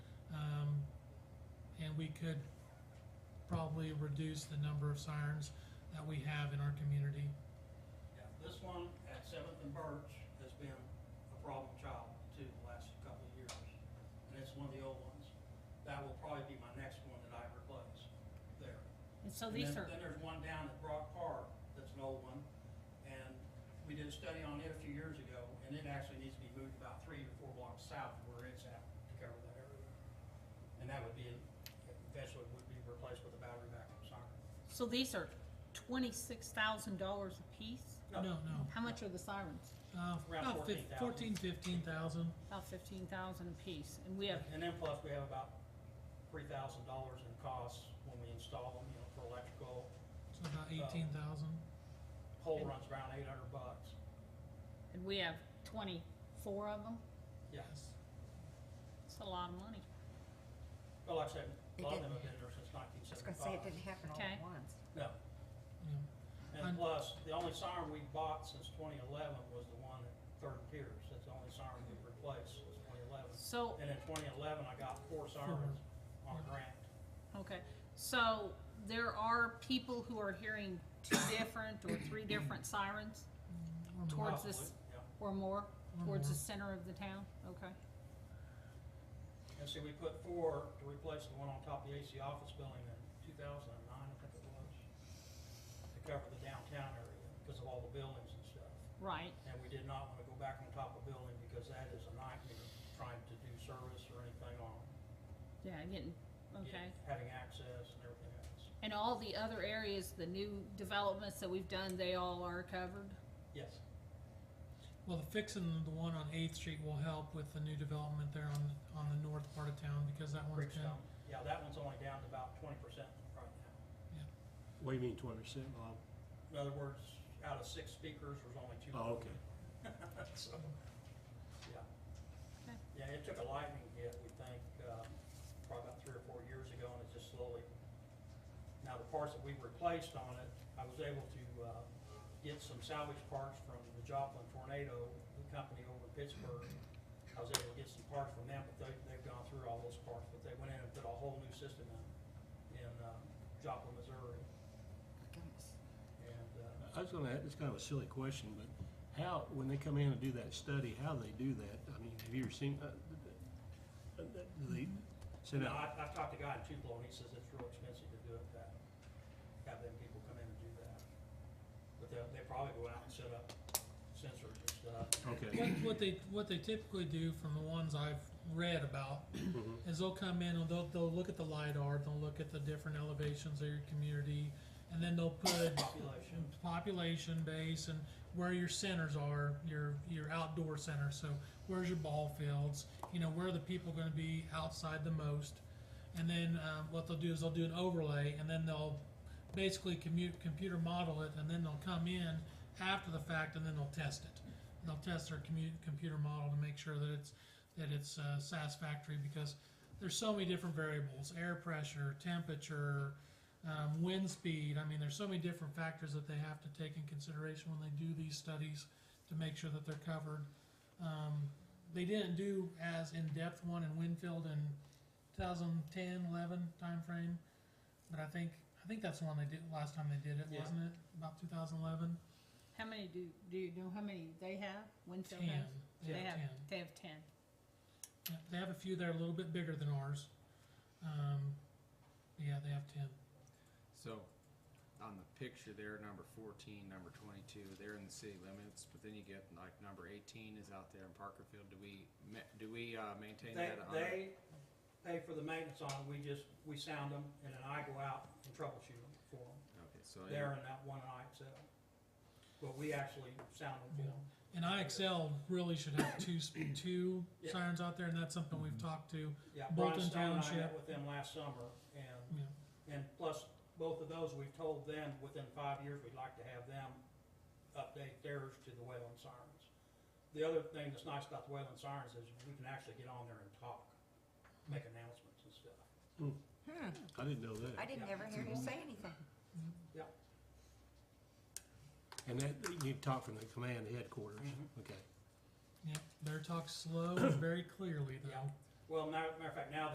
Um, we could probably reduce the number of sirens that we have in our community. Yeah, this one at Seventh and Birch has been a problem child too the last couple of years. And it's one of the old ones. That will probably be my next one that I replace there. And so And these then- are, Then there's one down at Brock Park that's an old one. And we did a study on it a few years ago and it actually needs to be moved about three or four blocks south of where it's at to cover that area. And that would be, eventually would be replaced with a battery backup siren. so these are twenty-six thousand dollars apiece? No, no, How much are the sirens? uh, Around about fif- 14,000. fourteen, fifteen thousand, About fifteen thousand apiece, and we have, And then plus, we have about three thousand dollars in costs when we install them, you know, for electrical. so about eighteen thousand. Pole runs around eight hundred bucks. and we have twenty-four of them? Yeah, It's a lot of money. but like I said, a It lot of them didn't- have been there since nineteen I was gonna say, it seventy-five. didn't happen all Okay. at once. No, Yeah, and I'm- plus, the only siren we bought since twenty eleven was the one at Third and Pierce. That's the only siren we replaced was twenty eleven. So, And in twenty eleven, I got four sirens on a grant. okay, so there are people who are hearing two different or three different sirens or more. Towards this- Probably, Yeah, or more Or towards the more. center of the town? Okay, and see, we put four to replace the one on top of the AC office building in two thousand and nine, I think it was. to cover the downtown area because of all the buildings and stuff. right, And we did not want to go back on top of building because that is a nightmare trying to do service or anything on. it. yeah, getting, okay. Get- Having access and everything else. And all the other areas, the new developments that we've done, they all are covered? Yes, Well, the fixing the one on Eighth Street will help with the new development there on, on the north part of town, because that one's been, Bridgestone. Yeah, that one's only down to about twenty percent right now. What do you mean twenty percent, Bob? In other words, out of six speakers, there's only two. Oh, okay. So, yeah. Okay. Yeah, it took a lightning hit, we think, um, probably about three or four years ago, and it just slowly. Now, the parts that we replaced on it, I was able to, uh, get some salvage parts from the Joplin tornado, the company over in Pittsburgh. I was able to get some parts from them, but they, they've gone through all those parts, but they went in and put a whole new system in, in, um, Joplin, Missouri, My goodness. and, uh, I was gonna, ask- it's kind of a silly question, but how, when they come in and do that study, how they do that? I mean, have you ever seen, uh, uh, uh, do they send No, out? I, I talked to a guy in Tupelo, and he says it's real expensive to do it, that, have them people come in and do that. But they'll, they probably go out and set up sensors and stuff. Okay, what, what they, what they typically do from the ones I've read about mhm, is they'll come in and they'll, they'll look at the LiDAR, they'll look at the different elevations of your community, and then they'll put Population, population base and where your centers are, your your outdoor center. So where's your ball fields? You know where are the people going to be outside the most? And then um, what they'll do is they'll do an overlay, and then they'll basically commute, computer model it, and then they'll come in after the fact, and then they'll test it. And they'll test their commu- computer model to make sure that it's that it's uh, satisfactory because there's so many different variables: air pressure, temperature um, wind speed. I mean, there's so many different factors that they have to take in consideration when they do these studies to make sure that they're covered. Um, they didn't do as in-depth one in Winfield in 2010, 11 timeframe, but I think I think that's the one they did last time they did it, Yeah. wasn't it? About 2011. How many do, do you know how many they have, Winfield Ten. has? Yeah, They have, ten. they have ten. Yeah, they have a few that are a little bit bigger than ours. Um, yeah, they have 10. So, on the picture there, number fourteen, number twenty-two, they're in the city limits, but then you get like number eighteen is out there in Parkerfield. Do we, ma- do we, uh, maintain they, that? on our- they pay for the maintenance on it, we just, we sound them, and then I go out and troubleshoot them for them, Okay, so, there in that one I excel. But we actually sound them for them, And IXL really should have two sp- two Yeah. sirens out there, and that's something we've talked to. yeah, Brian Bolton Stone and I Township. met with them last summer, and You know, And plus, both of those, we've told them within five years, we'd like to have them update theirs to the Wayland Sirens. The other thing that's nice about the Wayland Sirens is we can actually get on there and talk, make announcements and stuff. Hmm, I didn't know that. I didn't ever hear you say anything. And that, you talk from the command headquarters, okay. yeah, their talk's slow and very clearly though. Yeah. Well, matter, matter of fact, now